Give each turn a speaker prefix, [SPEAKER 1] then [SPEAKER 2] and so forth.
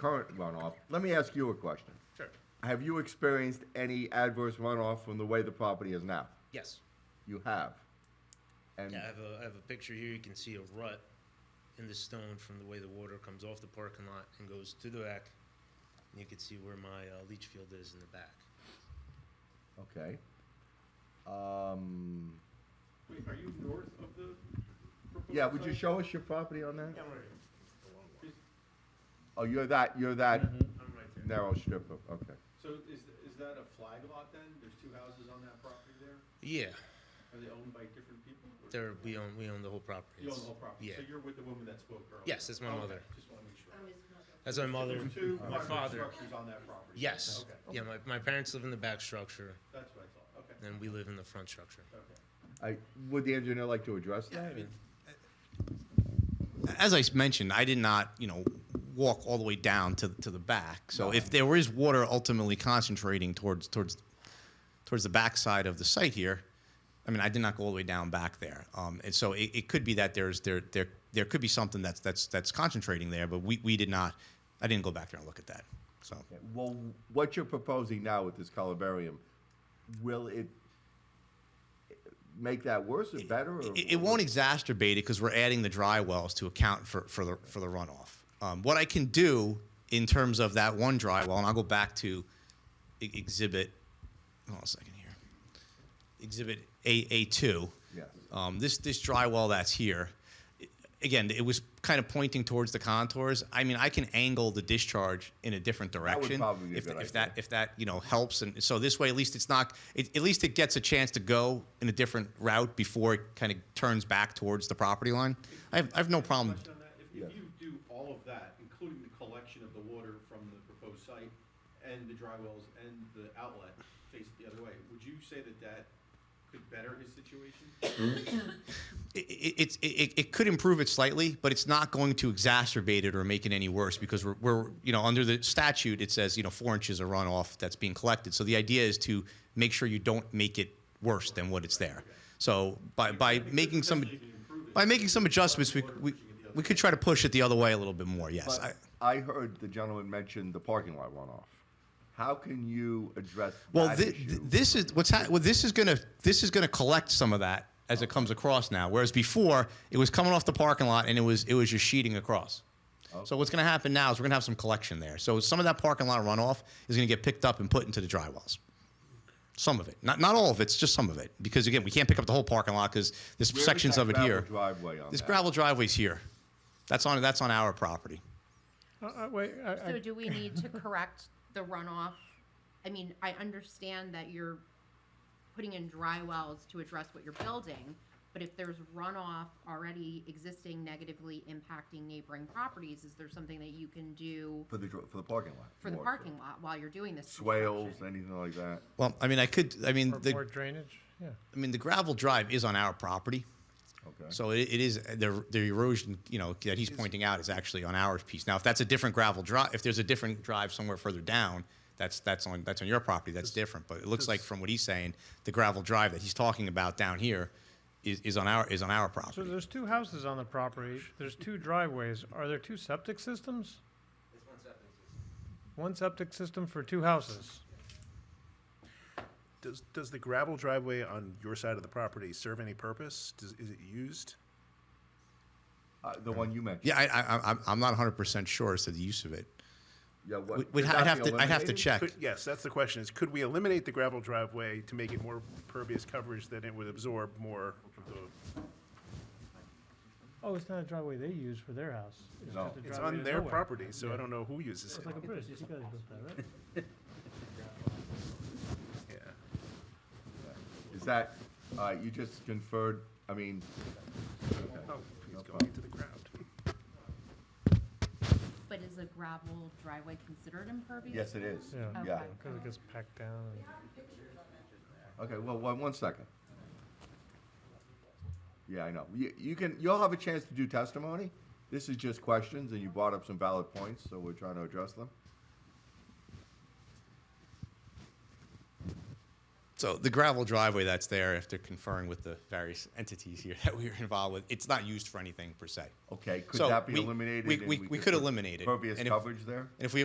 [SPEAKER 1] current runoff, let me ask you a question.
[SPEAKER 2] Sure.
[SPEAKER 1] Have you experienced any adverse runoff from the way the property is now?
[SPEAKER 2] Yes.
[SPEAKER 1] You have. And
[SPEAKER 2] Yeah, I have a, I have a picture here, you can see a rut in the stone from the way the water comes off the parking lot and goes to the back. And you can see where my uh, leach field is in the back.
[SPEAKER 1] okay. Um,
[SPEAKER 3] Wait, are you north of the proposed
[SPEAKER 1] yeah, would you
[SPEAKER 3] site?
[SPEAKER 1] show us your property on that?
[SPEAKER 3] I'm right,
[SPEAKER 1] Oh, you're that you're that
[SPEAKER 4] Mm-hmm.
[SPEAKER 3] I'm right there.
[SPEAKER 1] narrow strip of okay.
[SPEAKER 3] So is, is that a flag lot then? There's two houses on that property there?
[SPEAKER 2] Yeah,
[SPEAKER 3] Are they owned by different people? or-
[SPEAKER 2] there, we own, we own the whole property.
[SPEAKER 3] You own the whole property?
[SPEAKER 2] Yeah,
[SPEAKER 3] So you're with the woman that spoke earlier?
[SPEAKER 2] Yes, that's my
[SPEAKER 3] Okay,
[SPEAKER 2] mother.
[SPEAKER 3] Just want to make sure.
[SPEAKER 2] that's my mother,
[SPEAKER 3] There's two
[SPEAKER 2] my
[SPEAKER 3] apartment
[SPEAKER 2] father.
[SPEAKER 3] structures on that property?
[SPEAKER 2] Yes,
[SPEAKER 3] Okay,
[SPEAKER 2] yeah, my, my parents live in the back structure
[SPEAKER 3] that's what I thought. Okay,
[SPEAKER 2] and we live in the front structure.
[SPEAKER 3] okay.
[SPEAKER 1] I, would the engineer like to address that?
[SPEAKER 4] As I s- mentioned, I did not, you know, walk all the way down to, to the back. So if there is water ultimately concentrating towards towards towards the backside of the site here, I mean, I did not go all the way down back there. Um, and so it, it could be that there's there there there could be something that's that's that's concentrating there, but we, we did not. I didn't go back there and look at that. So
[SPEAKER 1] Okay, Well, what you're proposing now with this columbarium, will it make that worse or better? Or
[SPEAKER 4] it, it won't exacerbate it because we're adding the dry wells to account for, for the for the runoff. Um, what I can do in terms of that one dry well, and I'll go back to e- exhibit. Hold on a second here. Exhibit A A two.
[SPEAKER 1] Yes.
[SPEAKER 4] Um, this this dry well that's here. i- Again, it was kind of pointing towards the contours. I mean, I can angle the discharge in a different
[SPEAKER 1] would
[SPEAKER 4] direction
[SPEAKER 1] probably be a
[SPEAKER 4] if,
[SPEAKER 1] good
[SPEAKER 4] if
[SPEAKER 1] idea.
[SPEAKER 4] that if that you know helps and so this way at least it's not it, at least it gets a chance to go in a different route before it kind of turns back towards the property line i have, I have no problem
[SPEAKER 3] Question on that, if, if you do all of that, including the collection of the water from the proposed site and the dry wells and the outlet faced the other way, would you say that that could better his situation?
[SPEAKER 4] it, it, it's- it, it, it could improve it slightly but it's not going to exacerbate it or make it any worse because we're, we're you know under the statute it says you know four inches of runoff that's being collected so the idea is to make sure you don't make it worse than what it's there so by, by making some
[SPEAKER 3] Potentially even improve it.
[SPEAKER 4] by making some adjustments we, we, we could try to push it the other way a little bit more yes
[SPEAKER 1] But
[SPEAKER 4] I,
[SPEAKER 1] I heard the gentleman mention the parking lot runoff. How can you address
[SPEAKER 4] Well,
[SPEAKER 1] that
[SPEAKER 4] thi-
[SPEAKER 1] issue?
[SPEAKER 4] th- this is what's ha- well, this is gonna this is gonna collect some of that as it comes across now. Whereas before, it was coming off the parking lot and it was it was just sheeting across.
[SPEAKER 1] Oh.
[SPEAKER 4] So what's gonna happen now is we're gonna have some collection there. So some of that parking lot runoff is gonna get picked up and put into the dry wells. Some of it, not not all of it, it's just some of it. Because again, we can't pick up the whole parking lot because there's
[SPEAKER 1] Where is
[SPEAKER 4] sections
[SPEAKER 1] that
[SPEAKER 4] of it
[SPEAKER 1] gravel
[SPEAKER 4] here.
[SPEAKER 1] Driveway on
[SPEAKER 4] This
[SPEAKER 1] that?
[SPEAKER 4] gravel driveway's here. That's on that's on our property.
[SPEAKER 5] Uh, uh, wait, I, I,
[SPEAKER 6] So do we need to correct the runoff? I mean, I understand that you're putting in dry wells to address what you're building, but if there's runoff already existing negatively impacting neighboring properties, is there something that you can do
[SPEAKER 1] for the dr- for the parking lot
[SPEAKER 6] for the
[SPEAKER 1] more,
[SPEAKER 6] parking lot while you're doing this?
[SPEAKER 1] swales,
[SPEAKER 6] construction?
[SPEAKER 1] anything like that.
[SPEAKER 4] Well, I mean, I could. I mean,
[SPEAKER 5] or
[SPEAKER 4] the
[SPEAKER 5] more drainage, yeah.
[SPEAKER 4] I mean the gravel drive is on our property.
[SPEAKER 1] Okay.
[SPEAKER 4] So it, it is the, the erosion, you know, that he's pointing out is actually on our piece. Now, if that's a different gravel drive, if there's a different drive somewhere further down, that's that's on that's on your property. That's different. But it looks like from what he's saying, the gravel drive that he's talking about down here is, is on our is on our
[SPEAKER 5] So
[SPEAKER 4] property.
[SPEAKER 5] there's two houses on the property, there's two driveways, are there two septic systems? One septic system for two houses?
[SPEAKER 7] Does, does the gravel driveway on your side of the property serve any purpose? Does, is it used?
[SPEAKER 1] Uh, the one you mentioned.
[SPEAKER 4] Yeah, I, I, I'm- I'm not 100 percent sure as to the use of it.
[SPEAKER 1] Yeah. What,
[SPEAKER 4] We,
[SPEAKER 1] could
[SPEAKER 4] we'd ha-
[SPEAKER 1] that
[SPEAKER 4] I'd have
[SPEAKER 1] be
[SPEAKER 4] to I'd have to
[SPEAKER 1] eliminated?
[SPEAKER 4] check.
[SPEAKER 7] Could, yes, that's the question, is could we eliminate the gravel driveway to make it more pervious coverage than it would absorb more of the,
[SPEAKER 5] Oh, it's not a driveway they use for their house.
[SPEAKER 1] No.
[SPEAKER 5] just a
[SPEAKER 7] it's
[SPEAKER 5] driveway
[SPEAKER 7] on
[SPEAKER 5] to
[SPEAKER 7] their
[SPEAKER 5] nowhere.
[SPEAKER 7] property, so I don't know who uses
[SPEAKER 5] It's
[SPEAKER 7] it.
[SPEAKER 5] like a bridge, you guys built that, right?
[SPEAKER 7] Yeah.
[SPEAKER 1] Is that uh, you just conferred? I mean,
[SPEAKER 7] Oh, he's going into the ground.
[SPEAKER 6] But is a gravel driveway considered impervious?
[SPEAKER 1] yes, it is.
[SPEAKER 5] Yeah.
[SPEAKER 1] yeah.
[SPEAKER 6] Okay.
[SPEAKER 5] Because it gets packed down. and-
[SPEAKER 1] Okay, well, one, one second. Yeah, I know. You, you can, you'll have a chance to do testimony. This is just questions, and you brought up some valid points, so we're trying to address them.
[SPEAKER 4] So the gravel driveway that's there, after conferring with the various entities here that we were involved with, it's not used for anything per se.
[SPEAKER 1] Okay, could
[SPEAKER 4] So
[SPEAKER 1] that be
[SPEAKER 4] we-
[SPEAKER 1] eliminated?
[SPEAKER 4] we-
[SPEAKER 1] and
[SPEAKER 4] we- we could
[SPEAKER 1] put
[SPEAKER 4] eliminate it.
[SPEAKER 1] Impervious
[SPEAKER 4] And if-
[SPEAKER 1] coverage there?
[SPEAKER 4] And if we